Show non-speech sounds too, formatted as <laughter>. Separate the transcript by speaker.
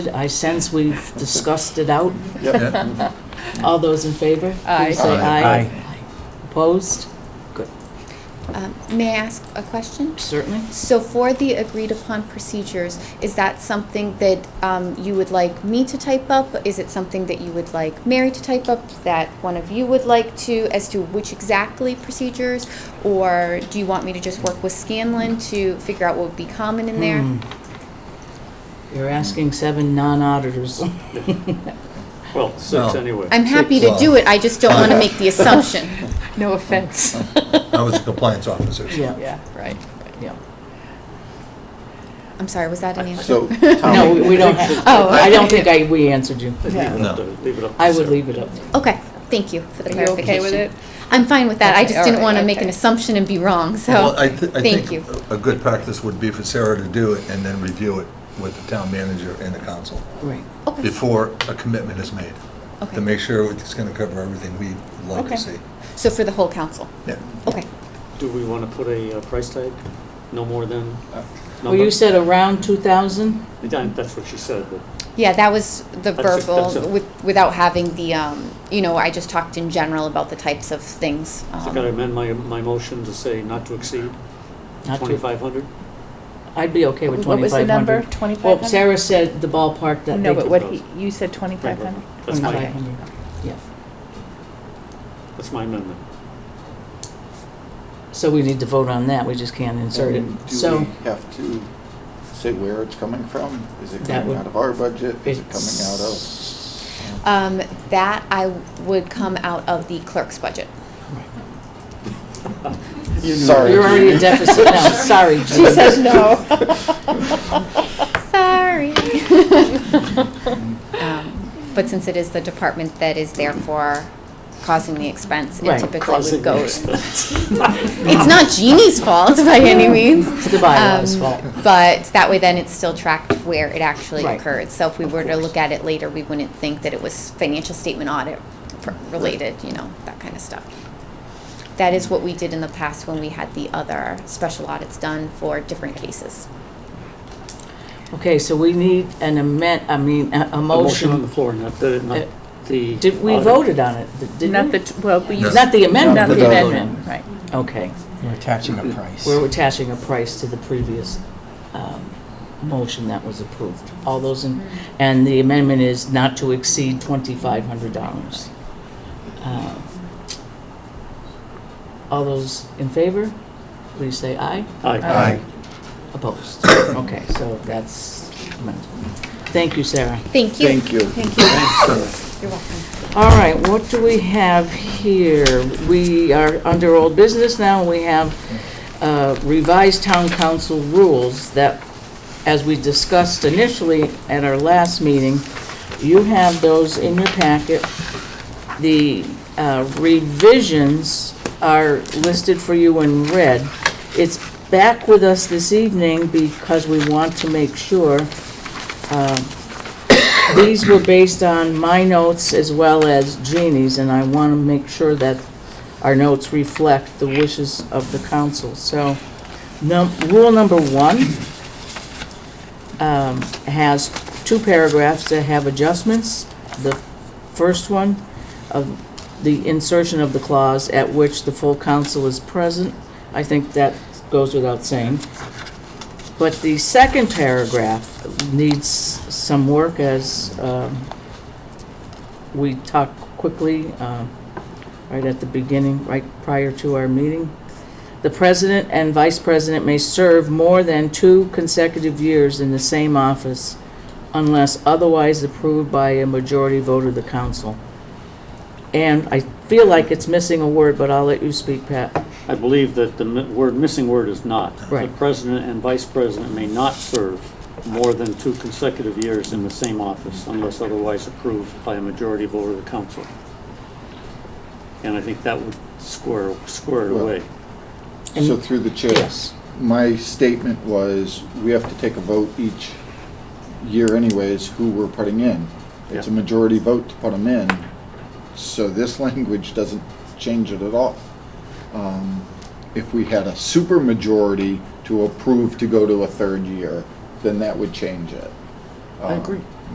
Speaker 1: I sense we've discussed it out.
Speaker 2: Yeah.
Speaker 1: All those in favor?
Speaker 3: Aye.
Speaker 1: Please say
Speaker 2: Aye.
Speaker 1: aye. Opposed?
Speaker 4: Um, May I ask a question?
Speaker 1: Certainly.
Speaker 4: So for the agreed-upon procedures, is that something that um, you would like me to type up? Is it something that you would like Mary to type up, that one of you would like to, as to which exactly procedures? Or do you want me to just work with Scanlon to figure out what would be common in there?
Speaker 1: Hmm. You're asking seven non-auditors. <laughs>
Speaker 5: Well, six
Speaker 2: Well,
Speaker 5: anyway.
Speaker 4: I'm happy to do it, I just don't want to make the assumption.
Speaker 3: <laughs> No offense.
Speaker 2: I was a compliance officer. so-
Speaker 1: Yeah,
Speaker 3: <laughs> Yeah, right.
Speaker 1: yeah.
Speaker 4: I'm sorry, was that an answer?
Speaker 6: So,
Speaker 1: No,
Speaker 6: Tom,
Speaker 1: we <laughs> don't
Speaker 4: <laughs>
Speaker 1: have,
Speaker 4: Oh,
Speaker 1: I don't think I, we answered you.
Speaker 5: I think leave it up
Speaker 2: No.
Speaker 5: to- Leave it up to
Speaker 1: I would
Speaker 5: Sarah.
Speaker 1: leave it up.
Speaker 4: Okay, thank you for the
Speaker 3: Are you
Speaker 4: clarification.
Speaker 3: okay with it?
Speaker 4: I'm fine with that, I
Speaker 3: Okay,
Speaker 4: just didn't
Speaker 3: alright,
Speaker 4: want to make an
Speaker 3: okay.
Speaker 4: assumption and be wrong, so,
Speaker 2: Well, I thi- I
Speaker 4: thank
Speaker 2: think
Speaker 4: you.
Speaker 2: A good practice would be for Sarah to do it and then review it with the town manager and the council
Speaker 1: Right.
Speaker 4: Okay.
Speaker 2: before a commitment is made.
Speaker 4: Okay.
Speaker 2: To make sure it's going to cover everything we'd like
Speaker 1: Okay.
Speaker 2: to see.
Speaker 4: So for the whole council?
Speaker 2: Yeah.
Speaker 4: Okay.
Speaker 5: Do we want to put a uh, price tag? No more than?
Speaker 1: Well, you said around 2,000?
Speaker 5: said. That's what she said, but
Speaker 4: Yeah, that was the
Speaker 5: That's it,
Speaker 4: verbal,
Speaker 5: that's it.
Speaker 4: with, without having the, um, you know, I just talked in general about the types of things.
Speaker 5: so
Speaker 4: um,
Speaker 5: can I amend my, my motion to say not to exceed
Speaker 1: Not too-
Speaker 5: 2,500?
Speaker 1: I'd be okay with 2,500.
Speaker 3: What was the number? Twenty-five
Speaker 1: Well,
Speaker 3: hundred?
Speaker 1: Sarah said the ballpark that
Speaker 3: No,
Speaker 1: they
Speaker 3: but
Speaker 1: could,
Speaker 3: what he, you said twenty-five hundred?
Speaker 5: That's my,
Speaker 1: 2,500, yeah.
Speaker 5: that's my amendment.
Speaker 1: So we need to vote on that, we just can't insert
Speaker 6: and
Speaker 1: it. So
Speaker 6: Do we have to say where it's coming from? Is it
Speaker 1: That
Speaker 6: coming
Speaker 1: would-
Speaker 6: out of our budget? Is it coming out of?
Speaker 1: it's...
Speaker 4: Um, that I would come out of the clerk's budget.
Speaker 6: Sorry.
Speaker 1: You're already in
Speaker 6: Judy.
Speaker 1: deficit now, sorry.
Speaker 3: She
Speaker 1: Judy.
Speaker 3: says no.
Speaker 5: <laughs>
Speaker 4: Sorry. Um, But since it is the department that is therefore causing the expense,
Speaker 1: Right,
Speaker 4: it typically
Speaker 5: Crossing
Speaker 4: would
Speaker 5: the
Speaker 4: go.
Speaker 5: expense.
Speaker 4: It's not Jeannie's fault by any means.
Speaker 1: It's the bylaws'
Speaker 4: Um,
Speaker 1: fault.
Speaker 4: But that way then it's still tracked where it actually
Speaker 1: Right.
Speaker 4: occurred. So if we were to look at it later, we wouldn't think that it was financial statement audit pr- related, you know, that kind of stuff. That is what we did in the past when we had the other special audits done for different cases.
Speaker 1: Okay, so we need an amend, I mean, a- a
Speaker 5: A motion on the
Speaker 1: motion.
Speaker 5: floor, not the,
Speaker 1: Uh,
Speaker 5: not the.
Speaker 1: Did, we
Speaker 5: audit.
Speaker 1: voted on it, did- didn't
Speaker 3: Not
Speaker 1: we?
Speaker 3: the, t- well, we
Speaker 2: No.
Speaker 3: used.
Speaker 1: Not the
Speaker 3: Not
Speaker 1: amendment.
Speaker 3: the
Speaker 2: No.
Speaker 3: amendment, right.
Speaker 1: Okay,
Speaker 7: We're attaching a price.
Speaker 1: we're attaching a price to the previous um, motion that was approved. All those in, and the amendment is not to exceed $2,500. Uh, All those in favor, please say aye.
Speaker 5: Aye.
Speaker 1: Opposed. Okay, so that's amended. Thank you, Sarah.
Speaker 4: Thank you.
Speaker 6: Thank you.
Speaker 4: Thank you. You're welcome.
Speaker 1: All right, what do we have here? We are under old business now. We have uh, revised town council rules that, as we discussed initially at our last meeting, you have those in your packet. The uh, revisions are listed for you in red. It's back with us this evening because we want to make sure um, these were based on my notes as well as Jeannie's, and I want to make sure that our notes reflect the wishes of the council. So, num- rule number one um, has two paragraphs that have adjustments. The first one of the insertion of the clause at which the full council is present. I think that goes without saying. But the second paragraph needs some work as um, we talked quickly, um, right at the beginning, right prior to our meeting. The president and vice president may serve more than two consecutive years in the same office unless otherwise approved by a majority vote of the council. And I feel like it's missing a word, but I'll let you speak, Pat.
Speaker 5: I believe that the mi- word, missing word is not.
Speaker 1: Right.
Speaker 5: The president and vice president may not serve more than two consecutive years in the same office unless otherwise approved by a majority vote of the council. And I think that would square, square it
Speaker 6: Well-
Speaker 5: away.
Speaker 6: So through the chair, my statement was, we have to take a vote each year anyways, who we're putting in. It's a
Speaker 5: Yeah.
Speaker 6: majority vote to put them in, so this <laughs> language doesn't change it at all. Um, If we had a super majority to approve to go to a third year, then that would change it.
Speaker 5: I agree.